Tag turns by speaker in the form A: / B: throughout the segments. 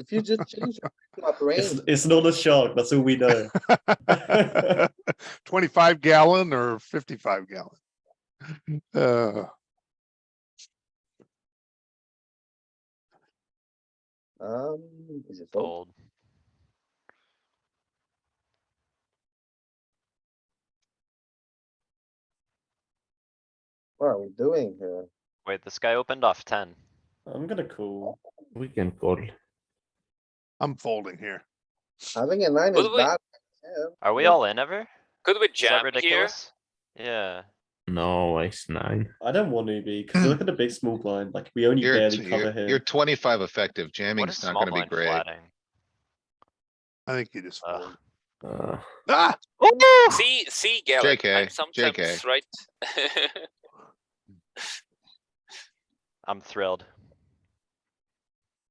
A: If you just change your freaking
B: It's,
A: brain,
B: it's not a shark. That's all we know.
C: Twenty-five gallon or fifty-five gallon? Uh,
A: um, is
D: Oh.
A: it fold?
E: Fold.
A: What are we doing here?
E: Wait, this guy opened off ten.
B: I'm gonna call.
F: We can call.
C: I'm folding here.
A: Having a nine is
G: Well, wait.
A: bad. Yeah,
E: Are we
A: Yeah.
E: all in ever?
G: Could we
E: Is that
G: jam here?
E: ridiculous? Yeah,
F: No, ace nine.
B: I don't want to be because look at the big small blind. Like we only
D: You're,
B: barely
D: t-
B: cover
D: you're,
B: here.
D: you're twenty-five effective.
E: what is
D: Jamming's not
E: small
D: gonna be
E: blind
D: great.
E: flatting?
C: I think you just
G: Ah.
E: Ugh.
C: fold.
F: Uh,
C: Ah,
G: See, see, Galen,
D: JK,
G: I'm sometimes
D: JK.
G: right.
E: I'm thrilled.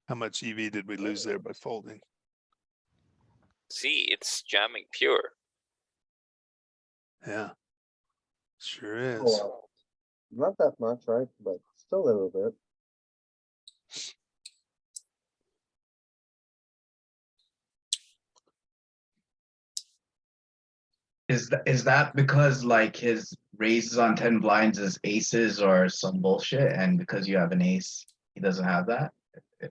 C: how much EV did we lose there by folding?
G: See, it's jamming pure.
C: Yeah. Sure is.
A: well, Not that much, right? But still a little bit.
H: Is that, is that because like his raises on ten blinds is aces or some bullshit, and because you have an ace, he doesn't have that?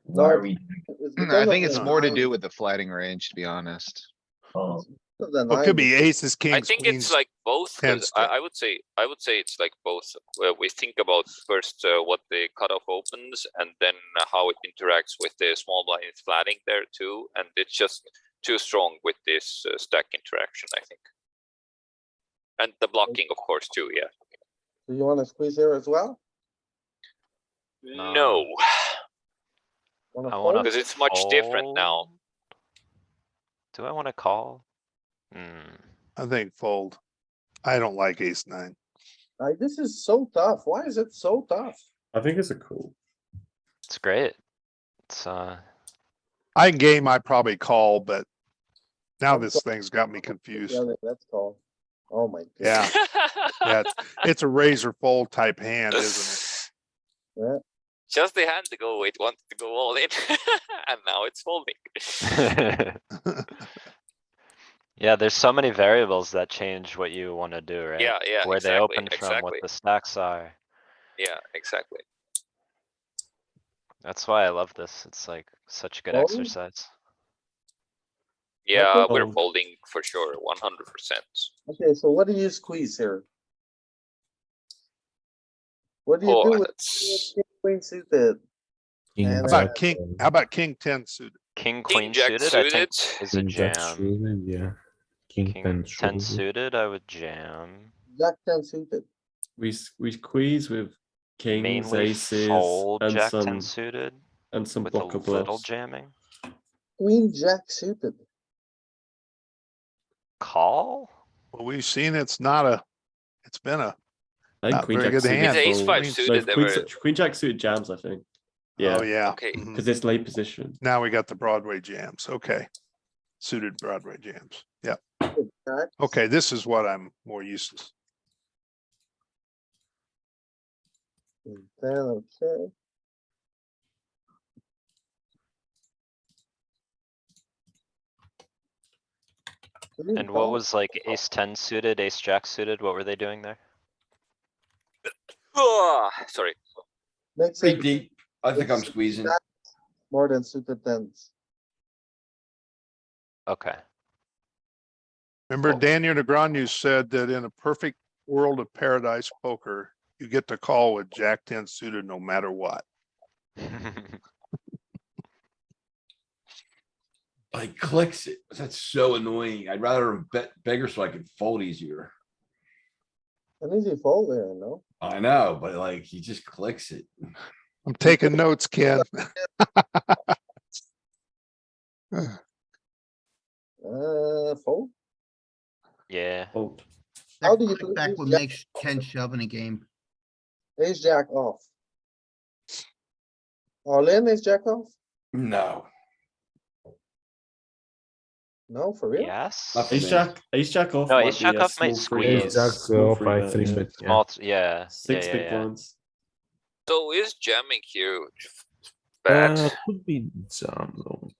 H: Why are we?
A: It's
D: Mm,
A: because
D: I
A: of
D: think
A: the
D: it's more to
E: Uh,
A: nine,
D: do with the flatting range, to be honest.
H: oh,
A: because of the
C: Well, It
A: nine.
C: could be aces,
G: I
C: kings,
G: think it's
C: queens.
G: like both. 'cause
C: tens
G: I,
C: to-
G: I would say, I would say it's like both. Well, we think about first uh, what the cutoff opens and then how it interacts with the small blind flatting there too. And it's just too strong with this uh, stack interaction, I think. And the blocking, of course, too, yeah.
A: Do you wanna squeeze here as well?
E: No.
G: No,
A: Wanna
E: I wanna-
A: fold?
G: because it's much different now.
E: Fold? Do I wanna call? Hmm,
C: I think fold. I don't like ace nine.
A: Like, this is so tough. Why is it so tough?
B: I think it's a call.
E: it's great. It's, uh,
C: I can game, I probably call, but now this thing's got me confused.
A: Yeah, Let's call. Oh my. God.
C: Yeah, yeah. it's- It's a razor fold type hand, isn't it?
A: Yeah.
G: Just the hand to go, it wanted to go all in, and now it's folding.
E: yeah, there's so many variables that change what you wanna do, right?
G: Yeah, yeah,
E: Where they
G: exactly,
E: open from, what
G: exactly.
E: the stacks are.
G: Yeah, exactly.
E: That's why I love this. It's like such good
D: Oh.
A: Fold?
E: exercise.
G: Yeah, we're
B: Fold.
G: folding for sure, one hundred percent.
A: Okay, so what do you squeeze here? What do you
G: Oh,
A: do with
G: that's
A: king queen suited?
F: king
A: And
C: How
A: then-
C: about king, how about king ten suited?
E: King,
G: king
E: queen
G: jack
E: suited, I
G: suited.
E: think is a
F: jack
E: jam.
F: suited, yeah. King,
E: King
F: ten,
E: ten
F: suited.
E: suited, I would jam.
A: Jack ten suited.
B: We s- we squeeze with kings,
E: Mainly
B: aces,
E: fold
B: and
E: jack
B: some
E: ten suited
B: and some
E: with a
B: blocker
E: little
B: bluffs.
E: jamming.
A: Queen jack suited.
E: Call?
C: Well, we've seen it's not a, it's been a,
B: I think
C: Not
B: queen
C: very
B: jack
C: good hand.
B: suited.
G: It's ace
B: fold.
G: five
B: No,
G: suited, they
B: queen,
G: were-
B: su- queen jack suited jams. I think. Yeah,
C: oh, yeah.
G: Okay.
C: mhm.
B: because it's late position.
C: Now we got the Broadway jams, okay. Suited Broadway jams, yeah,
A: Jack.
C: okay, this is what I'm more used to.
A: And Then, okay. Three
E: And what
A: five.
E: was like ace ten suited, ace jack suited? What were they doing there?
G: Ah, Sorry,
A: Makes
I: Pretty
A: it
I: deep. I think I'm
A: it's-
I: squeezing.
A: that- more than suited tens.
E: Okay,
C: Remember
E: Oh.
C: Daniel DeGranu said that in a perfect world of paradise poker, you get to call with Jack ten suited no matter what.
I: Like clicks, it- that's so annoying. I'd rather have bet bigger so I could fold easier.
A: An easy fold there, no?
I: I know, but like he just clicks it.
C: I'm taking notes, Ken.
A: Uh, fold?
E: yeah.
B: Fold.
A: How do you do
J: Back
A: ace
J: will
A: jack-
J: make ten shove in a game.
A: Ace jack off. All in, ace jack off?
I: No.
A: No, for real?
E: Yes?
I: Nothing.
B: Ace jack, ace jack off.
E: No,
B: might
E: ace
B: be a
E: jack off might
B: small free
E: squeeze.
B: bet,
F: Ace jack
B: small
F: off,
B: free
F: I
B: bet,
F: three
B: yeah.
F: bet, yeah.
E: Small, t- yeah, yeah,
B: Six
E: yeah,
B: big
E: yeah.
B: blinds.
G: so is jamming here bad.
A: Uh,
F: Uh, could be jam zone.